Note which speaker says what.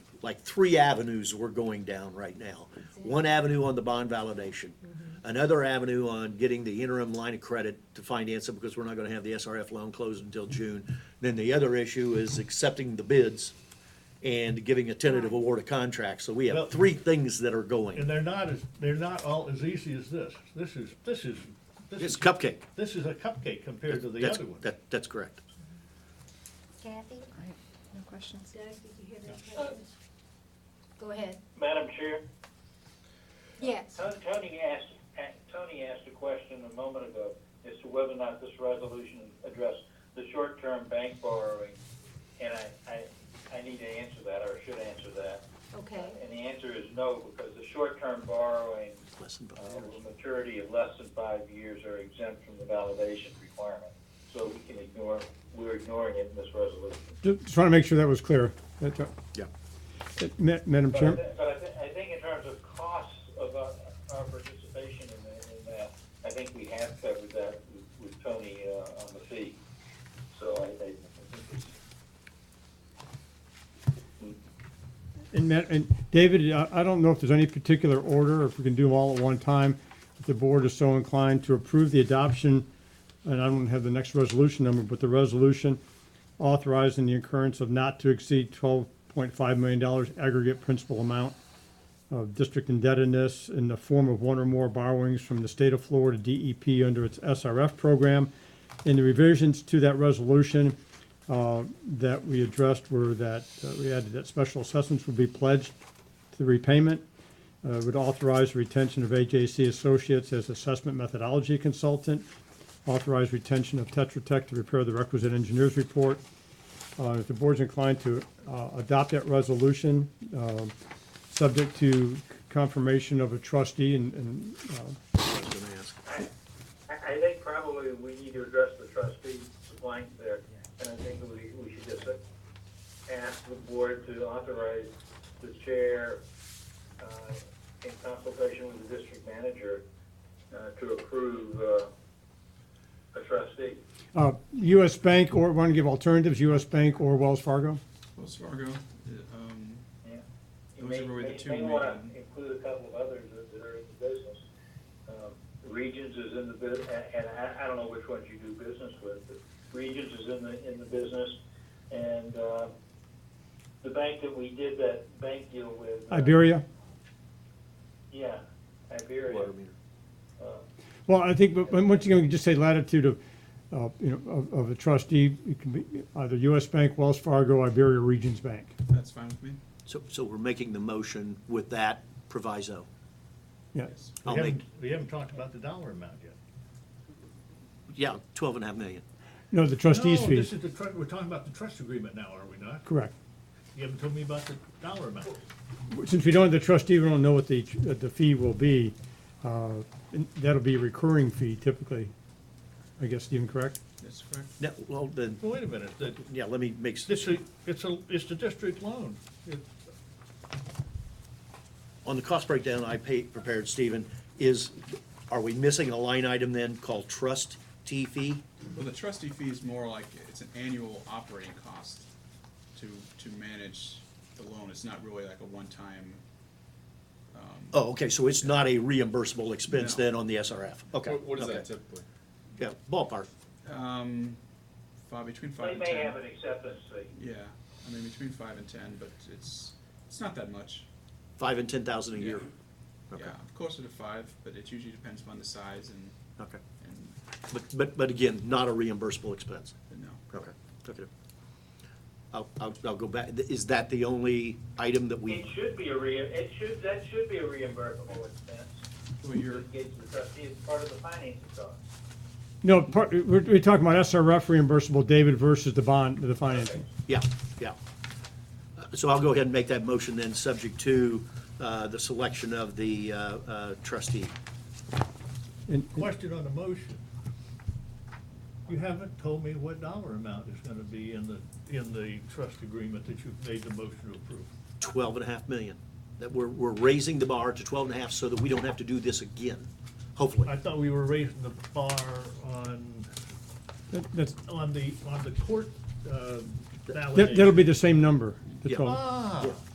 Speaker 1: like three avenues we're going down right now. One avenue on the bond validation, another avenue on getting the interim line of credit to finance it because we're not gonna have the SRF loan closed until June. Then the other issue is accepting the bids and giving a tentative award of contract. So we
Speaker 2: Well-
Speaker 1: have three things that are going.
Speaker 2: And they're not as, they're not all as easy as this. This is, this is, this
Speaker 1: It's
Speaker 2: is,
Speaker 1: cupcake.
Speaker 2: this is a cupcake compared to the
Speaker 1: That's-
Speaker 2: other one.
Speaker 1: That, that's correct.
Speaker 3: Kathy?
Speaker 4: No questions?
Speaker 3: Doug, did you hear that? Oh. Go ahead.
Speaker 5: Madam Chair,
Speaker 3: Yes.
Speaker 5: Ton- Tony asked, a- Tony asked a question a moment ago as to whether or not this resolution addressed the short-term bank borrowing. And I, I, I need to answer that, or should answer that.
Speaker 3: Okay.
Speaker 5: And the answer is no, because the short-term borrowing
Speaker 1: Less than
Speaker 5: uh,
Speaker 1: five
Speaker 2: Oh.
Speaker 1: years.
Speaker 5: with maturity of less than five years are exempt from the validation requirement. So we can ignore, we're ignoring it in this resolution.
Speaker 6: Ju- Just want to make sure that was clear. That, uh,
Speaker 1: Yeah.
Speaker 6: that- Ma- Madam
Speaker 5: But I
Speaker 6: Chair,
Speaker 5: thi- but I thi- I think in terms of costs of our, our participation in that, in that, I think we have covered that with- with Tony, uh, on the fee. So I, I I think it's.
Speaker 6: and Ma- and David, I I don't know if there's any particular order, or if we can do them all at one time. If the board is so inclined to approve the adoption, and I don't have the next resolution number, but the resolution authorizing the incurrence of not to exceed twelve point five million dollars aggregate principal amount of district indebtedness in the form of one or more borrowings from the state of Florida DEP under its SRF program. And the revisions to that resolution uh, that we addressed were that, uh, we added that special assessments would be pledged to the repayment, uh, would authorize retention of AJC Associates as assessment methodology consultant, authorize retention of Tetra Tech to prepare the requisite engineers report. Uh, If the board's inclined to uh, adopt that resolution, um, subject to confirmation of a trustee and- and uh,
Speaker 1: I was gonna ask.
Speaker 5: I, I think probably we need to address the trustee blank there, and I think we, we should just ask the board to authorize the chair, uh, in consultation with the district manager, uh, to approve, uh, a trustee.
Speaker 6: Uh, U.S. Bank or, want to give alternatives, U.S. Bank or Wells Fargo?
Speaker 7: Wells Fargo, uh, um,
Speaker 5: Yeah. You
Speaker 7: Those
Speaker 5: may,
Speaker 7: are really the
Speaker 5: may-
Speaker 7: two
Speaker 5: may wanna
Speaker 7: main-
Speaker 5: include a couple of others that- that are in the business. Um, Regions is in the bus, and, and I, I don't know which ones you do business with, but Regions is in the, in the business. And, uh, the bank that we did that bank deal with. uh,
Speaker 6: Iberia?
Speaker 5: Yeah, Iberia.
Speaker 1: Water meter.
Speaker 5: Uh,
Speaker 6: Well, I think, but but once again, we can just say latitude of, uh, you know, of- of a trustee, it can be either U.S. Bank, Wells Fargo, Iberia, Regions Bank.
Speaker 7: that's fine with me.
Speaker 1: So, so we're making the motion with that proviso.
Speaker 6: Yeah.
Speaker 7: Yes.
Speaker 1: I'll
Speaker 2: We
Speaker 1: make,
Speaker 2: haven't, we haven't talked about the dollar amount yet.
Speaker 1: yeah, twelve and a half million.
Speaker 6: No, the trustees
Speaker 2: No, This
Speaker 6: fees,
Speaker 2: is the, tru- we're talking about the trust agreement now, are we not?
Speaker 6: correct.
Speaker 2: You haven't told me about the dollar amount.
Speaker 6: Since we don't have the trustee, we don't know what the, uh, the fee will be. uh, and That'll be a recurring fee typically, I guess, Stephen, correct?
Speaker 7: That's correct.
Speaker 1: No, well, then,
Speaker 2: Well, Wait a minute, the,
Speaker 1: yeah, let me make, s-
Speaker 2: this is, it's a, it's the district loan. It-
Speaker 1: on the cost breakdown I pa- prepared, Stephen, is, are we missing a line item then called trust T fee?
Speaker 7: Well, the trustee fee is more like, it's an annual operating cost to, to manage the loan. It's not really like a one-time,
Speaker 1: Oh, okay, so it's not a reimbursable expense
Speaker 7: No.
Speaker 1: then on the SRF? Okay.
Speaker 7: what, what is that
Speaker 1: okay.
Speaker 7: typically?
Speaker 1: Yeah, ballpark.
Speaker 7: Um, five, between five
Speaker 5: They
Speaker 7: and
Speaker 5: may
Speaker 7: ten.
Speaker 5: have an acceptance fee.
Speaker 7: Yeah, I mean, between five and ten, but it's, it's not that much.
Speaker 1: Five and ten thousand a
Speaker 7: Yeah.
Speaker 1: year. Okay.
Speaker 7: Yeah, closer to five, but it usually depends upon the size and,
Speaker 1: Okay.
Speaker 7: and,
Speaker 1: But, but, but again, not a reimbursable expense.
Speaker 7: but no.
Speaker 1: Okay, okay. I'll, I'll, I'll go back, is that the only item that
Speaker 5: It
Speaker 1: we,
Speaker 5: should be a re, it should, that should be a reimbursable expense.
Speaker 7: Well, you're,
Speaker 5: It gets the trustee, it's part of the financing cost.
Speaker 6: No, part, we're, we're talking about SRF reimbursable, David versus the bond, the financing.
Speaker 1: yeah, yeah. Uh, So I'll go ahead and make that motion then, subject to, uh, the selection of the, uh, uh, trustee.
Speaker 6: And-
Speaker 2: Question on the motion. You haven't told me what dollar amount is gonna be in the, in the trust agreement that you've made the motion to approve.
Speaker 1: Twelve and a half million. That we're, we're raising the bar to twelve and a half so that we don't have to do this again, hopefully.
Speaker 2: I thought we were raising the bar on,
Speaker 6: that- That's,
Speaker 2: on the, on the court, uh,
Speaker 6: that- that'll
Speaker 2: validation.
Speaker 6: be the same number, the
Speaker 1: Yeah.
Speaker 6: 12.
Speaker 2: Ah,